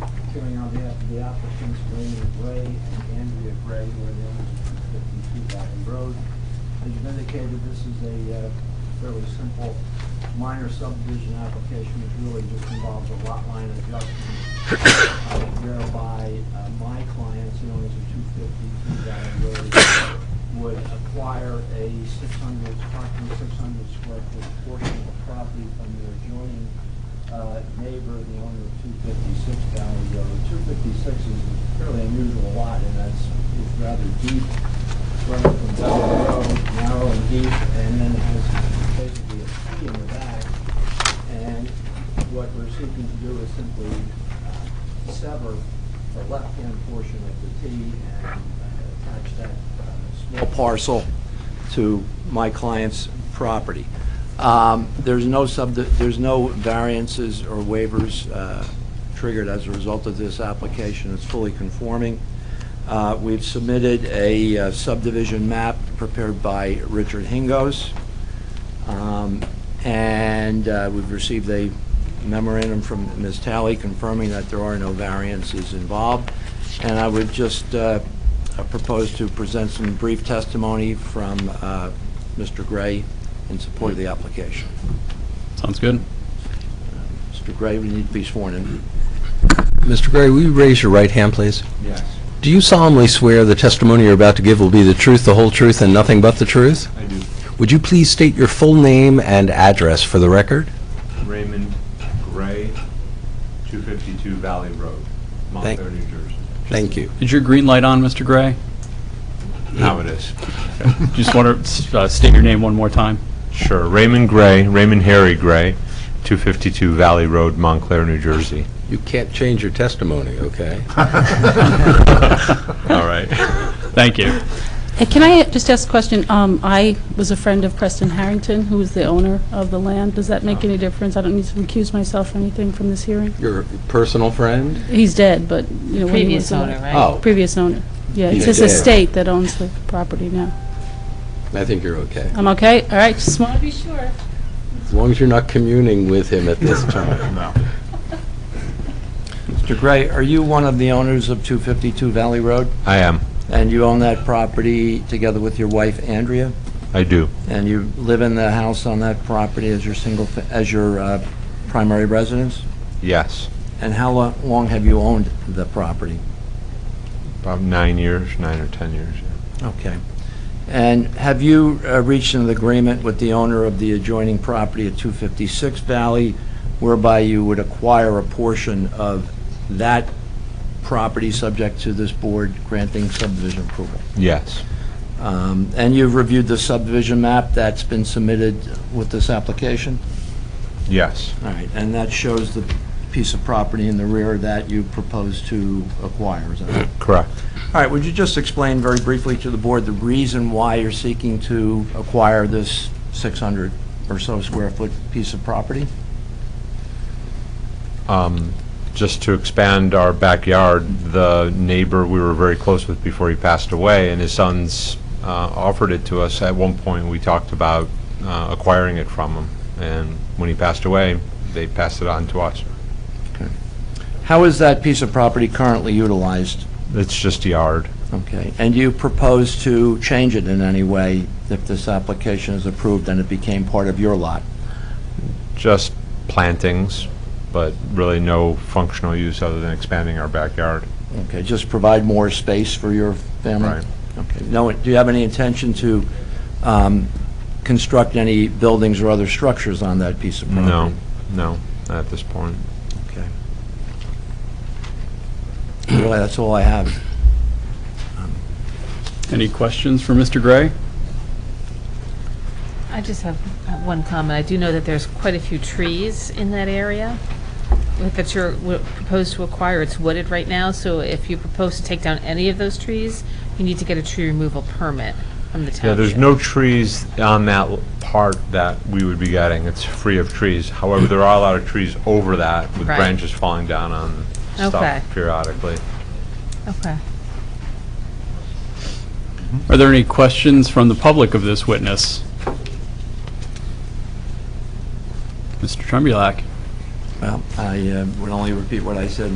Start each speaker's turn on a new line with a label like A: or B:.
A: appearing on behalf of the applicants Raymond Gray and Andrea Gray, who are the owners of 252 Valley Road. As you've indicated, this is a uh, fairly simple minor subdivision application, which really just involves a lot line adjustment uh, whereby uh, my clients, the owners of 252 Valley Road, would acquire a 600, approximately 600 square foot portion of property from their adjoining uh, neighbor, the owner of 256 Valley Road. 256 is a fairly unusual lot, and that's, it's rather deep, running from Valley Road, narrow and deep, and then it has basically a T in the back. And what we're seeking to do is simply uh, sever the left-hand portion of the T and uh, attach that uh, small parcel to my client's property. Um, There's no sub, there's no variances or waivers uh, triggered as a result of this application. It's fully conforming. Uh, We've submitted a uh, subdivision map prepared by Richard Hingos. Um, And uh, we've received a memorandum from Ms. Talley confirming that there are no variances involved. And I would just uh, propose to present some brief testimony from uh, Mr. Gray in support of the application.
B: Sounds good.
A: Mr. Gray, we need to be sworn in.
C: Mr. Gray, will you raise your right hand, please?
A: Yes.
C: Do you solemnly swear the testimony you're about to give will be the truth, the whole truth, and nothing but the truth?
D: I do.
C: Would you please state your full name and address for the record?
D: Raymond Gray, 252 Valley Road,
C: Thank-
D: Montclair, New Jersey.
C: Thank you.
B: Is your green light on, Mr. Gray?
D: Now it is.
B: Just want to state your name one more time.
D: Sure. Raymond Gray, Raymond Harry Gray, 252 Valley Road, Montclair, New Jersey.
C: You can't change your testimony, okay?
D: All right.
B: Thank you.
E: Uh, Can I just ask a question? Um, I was a friend of Preston Harrington, who was the owner of the land. Does that make any difference? I don't need to recuse myself or anything from this hearing?
C: Your personal friend?
E: He's dead, but, you know, when he
F: Previous
E: was...
F: owner,
E: alive-
F: right?
C: Oh,
E: Previous owner. Yeah,
C: He's
E: it's his
C: dead.
E: estate that owns the property now.
C: Oh, I think you're okay.
E: I'm okay? All right, just want to be sure.
C: As long as you're not communing with him at this time.
A: Mr. Gray, are you one of the owners of 252 Valley Road?
D: I am.
A: And you own that property together with your wife Andrea?
D: I do.
A: And you live in the house on that property as your single, fa- as your uh, primary residence?
D: Yes.
A: And how lo- long have you owned the property?
D: About nine years, nine or 10 years. yeah.
A: Okay. And have you uh, reached an agreement with the owner of the adjoining property at 256 Valley whereby you would acquire a portion of that property subject to this board granting subdivision approval?
D: Yes.
A: Um, And you've reviewed the subdivision map that's been submitted with this application?
D: Yes.
A: All right, and that shows the piece of property in the rear that you propose to acquire, is that right?
D: Correct.
A: All right, would you just explain very briefly to the board the reason why you're seeking to acquire this 600 or so square foot piece of property?
D: Um, Just to expand our backyard, the neighbor we were very close with before he passed away, and his sons uh, offered it to us. At one point, we talked about uh, acquiring it from him, and when he passed away, they passed it on to us.
A: How is that piece of property currently utilized?
D: It's just a yard.
A: Okay, and you propose to change it in any way if this application is approved and it became part of your lot?
D: Just plantings, but really no functional use other than expanding our backyard.
A: Okay, just provide more space for your family?
D: Right.
A: Okay, no, do you have any intention to um, construct any buildings or other structures on that piece of property?
D: No, no, not at this point.
A: Okay. Really, that's all I have.
B: Any questions for Mr. Gray?
D: Oh.
F: I just have uh, one comment. I do know that there's quite a few trees in that area that you're w- proposed to acquire. It's wooded right now, so if you propose to take down any of those trees, you need to get a tree removal permit from the township.
D: Yeah, there's no trees on that l- part that we would be getting. It's free of trees. However, there are a lot of trees over that with
F: Right.
D: branches falling down on
F: Okay.
D: stuff periodically.
F: Okay.
B: Are there any questions from the public of this witness? Mr. Trembleak?
A: Well, I uh, would only repeat what I said